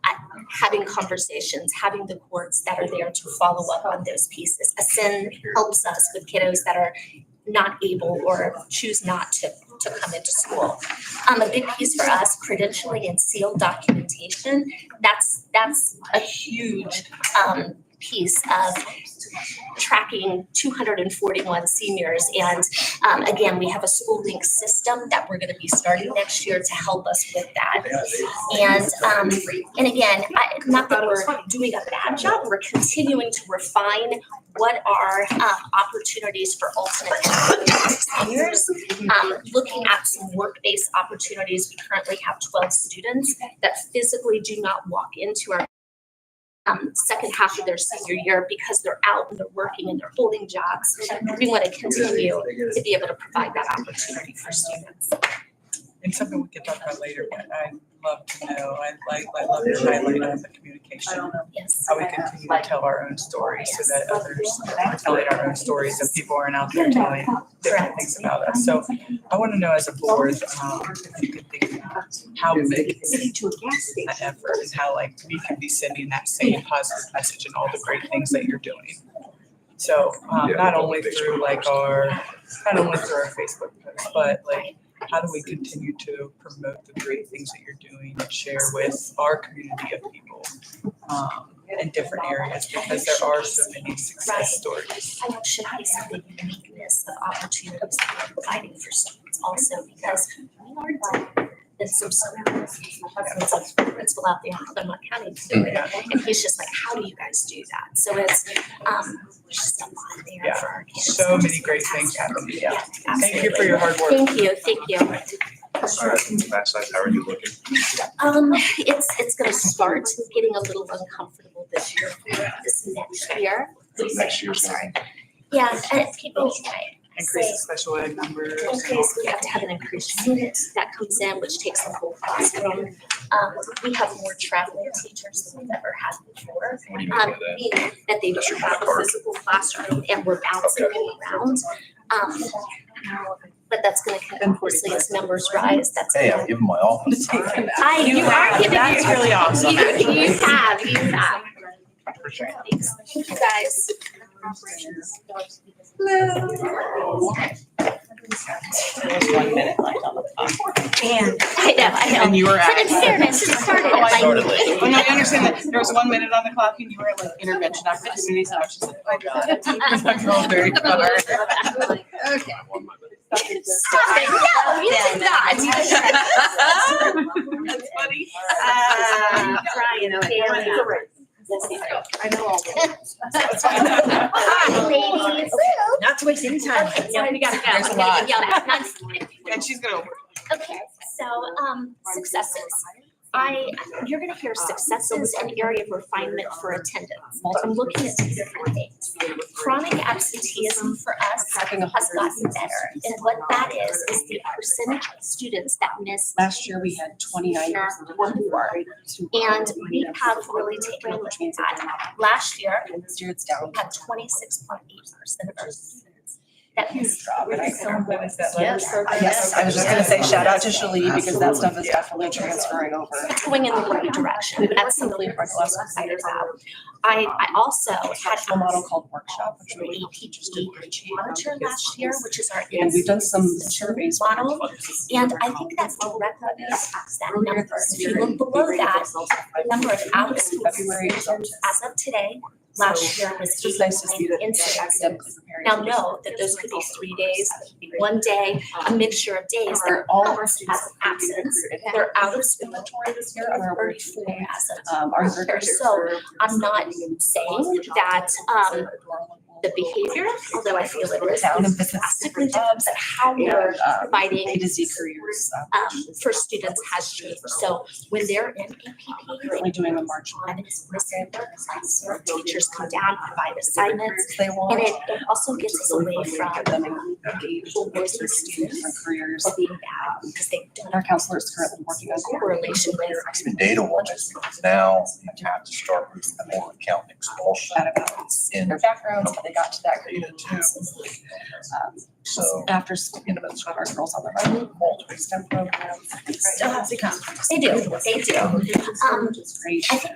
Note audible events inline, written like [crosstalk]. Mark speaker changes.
Speaker 1: having conversations, having the courts that are there to follow up on those pieces. ASIN helps us with kiddos that are not able or choose not to to come into school. Um, a big piece for us, credentialing and sealed documentation, that's that's a huge um piece of tracking two hundred and forty-one seniors. And um, again, we have a school link system that we're gonna be starting next year to help us with that. And um, and again, I, not that we're doing a bad job, we're continuing to refine what are uh, opportunities for alternate seniors. Um, looking at some work-based opportunities, we currently have twelve students that physically do not walk into our um, second half of their senior year because they're out and they're working and they're holding jobs. We want to continue to be able to provide that opportunity for students.
Speaker 2: And something we can talk about later, but I'd love to know, I like, I love to highlight on the communication.
Speaker 1: Yes.
Speaker 2: How we continue to tell our own stories so that others tell our own stories and people aren't out there telling different things about us. So I want to know as a board, um, if you could think about how big is
Speaker 3: to a gas
Speaker 2: that effort and how like we can be sending that same positive message and all the great things that you're doing. So um
Speaker 4: Yeah,
Speaker 2: not
Speaker 4: the
Speaker 2: only
Speaker 4: Facebook
Speaker 2: through like our, not only through our Facebook posts, but like how do we continue to promote the great things that you're doing and share with our community of people um in different areas because there are so many success stories.
Speaker 1: I know should be some of the uniqueness of opportunities that we're providing for students also because we are different than some schools. My husband's a principal out there in Claremont County today,
Speaker 2: Yeah.
Speaker 1: and he's just like, how do you guys do that? So it's, um, there's just a lot there
Speaker 2: Yeah.
Speaker 1: for our kids.
Speaker 2: So many great things happening, yeah. Thank you for your hard work.
Speaker 1: Thank you, thank you.
Speaker 4: Alright, Mass size, how are you looking?
Speaker 1: Um, it's, it's gonna start getting a little uncomfortable this year, this next year.
Speaker 4: Next year's
Speaker 1: Sorry.
Speaker 4: gonna
Speaker 1: Yeah, and people,
Speaker 2: Increase the special ed numbers.
Speaker 1: In case we have to have an increased unit that comes in, which takes the whole classroom. Um, we have more traveling teachers than we've ever had before.
Speaker 4: what do you mean by
Speaker 1: Um,
Speaker 4: that?
Speaker 1: meaning that they
Speaker 4: That's
Speaker 1: don't
Speaker 4: your
Speaker 1: have a
Speaker 4: card.
Speaker 1: physical classroom and we're bouncing them around. Um, but that's gonna, con- obviously, as numbers rise, that's.
Speaker 5: Hey, I'm
Speaker 1: gonna-
Speaker 5: giving my all.
Speaker 1: I, you are giving
Speaker 3: That's
Speaker 1: you,
Speaker 3: really awesome.
Speaker 1: you, you have, [laughs] you have. Thank you guys.
Speaker 3: One minute left on the clock. And.
Speaker 1: I know, I know.
Speaker 3: And you were
Speaker 1: But in
Speaker 3: at.
Speaker 1: fairness, it started at
Speaker 3: Oh, I-
Speaker 1: like [laughs]
Speaker 5: Started late.
Speaker 3: Well, no, I understand that there was one minute on the clock and you were at like intervention opportunities and I was just like, oh god.
Speaker 2: I'm all
Speaker 3: [laughs]
Speaker 2: very
Speaker 4: I
Speaker 2: covered.
Speaker 4: want my-
Speaker 1: Stop it, no, you did
Speaker 3: [laughs]
Speaker 1: not. [laughs]
Speaker 3: That's funny.
Speaker 1: Uh, Brian,
Speaker 3: I know all
Speaker 2: [laughs]
Speaker 3: Uh,
Speaker 1: Hi, ladies.
Speaker 3: Not to waste any
Speaker 1: Okay, no, we gotta go,
Speaker 3: There's
Speaker 1: I'm
Speaker 3: a
Speaker 1: gonna
Speaker 3: lot.
Speaker 1: get yelled at, not.
Speaker 3: [laughs] And she's gonna.
Speaker 1: Okay, so, um, successes. I, you're gonna hear
Speaker 3: Uh,
Speaker 1: successes and area of refinement for attendance. I'm looking at two different things. Chronic absenteeism for us has gotten better. And what that is, is the percentage of students that miss
Speaker 3: Last year, we had twenty-nine or more.
Speaker 1: And we have really taken a look at that. Last year,
Speaker 3: This year it's down.
Speaker 1: we had twenty-six point eight percent of our students
Speaker 3: Hmm.
Speaker 1: that missed.
Speaker 3: Yes, I was just gonna say shout out to Shalee because that stuff is definitely transferring over.
Speaker 1: It's going in the right direction. That's something we're less excited about. I, I also had
Speaker 3: A model called workshop, which
Speaker 1: through
Speaker 3: we
Speaker 1: APG monitor last year, which is our.
Speaker 3: and we've done some surveys.
Speaker 1: Model, And I think that's directly impacts that number. If you look below that, the number of hours who
Speaker 3: February is up.
Speaker 1: as of today, last year was
Speaker 3: It's just nice to see that.
Speaker 1: 89 incidents.
Speaker 3: academically
Speaker 1: Now
Speaker 3: preparing.
Speaker 1: know that those could be three days, one day, a mixture of days.
Speaker 3: Um, Our- all of our students
Speaker 1: As
Speaker 3: have been
Speaker 1: Oh, absence.
Speaker 3: recruited.
Speaker 1: They're out of school
Speaker 3: Inventory this year on our work
Speaker 1: thirty-four as of
Speaker 3: Um, our workers.
Speaker 1: So I'm not saying that um the behavior, although I feel it is
Speaker 3: Down and visits
Speaker 1: drastically different,
Speaker 3: different jobs.
Speaker 1: but how we're
Speaker 3: And, um, A
Speaker 1: providing
Speaker 3: to Z careers. um,
Speaker 1: um for students has changed. So when they're in APP, they
Speaker 3: Currently doing a March.
Speaker 1: on is missing their class, where teachers come down, provide assignments.
Speaker 3: They want.
Speaker 1: And it it also gets us away
Speaker 3: Get
Speaker 1: from
Speaker 3: them engaged
Speaker 1: people
Speaker 3: with
Speaker 1: versus
Speaker 3: students and
Speaker 1: students.
Speaker 3: careers.
Speaker 1: or being bad because they don't
Speaker 3: And our counselor is currently working on.
Speaker 1: have correlation with
Speaker 5: Even data wise, because now you have to start moving more account expulsion
Speaker 3: That about
Speaker 5: in
Speaker 3: their backgrounds, how they got to that.
Speaker 5: data too.
Speaker 3: Um,
Speaker 5: So
Speaker 3: after school, you know, it's got our girls on their own, multiple STEM programs.
Speaker 1: They do, they do.
Speaker 3: Um,
Speaker 1: Um,
Speaker 3: it's great.
Speaker 1: I think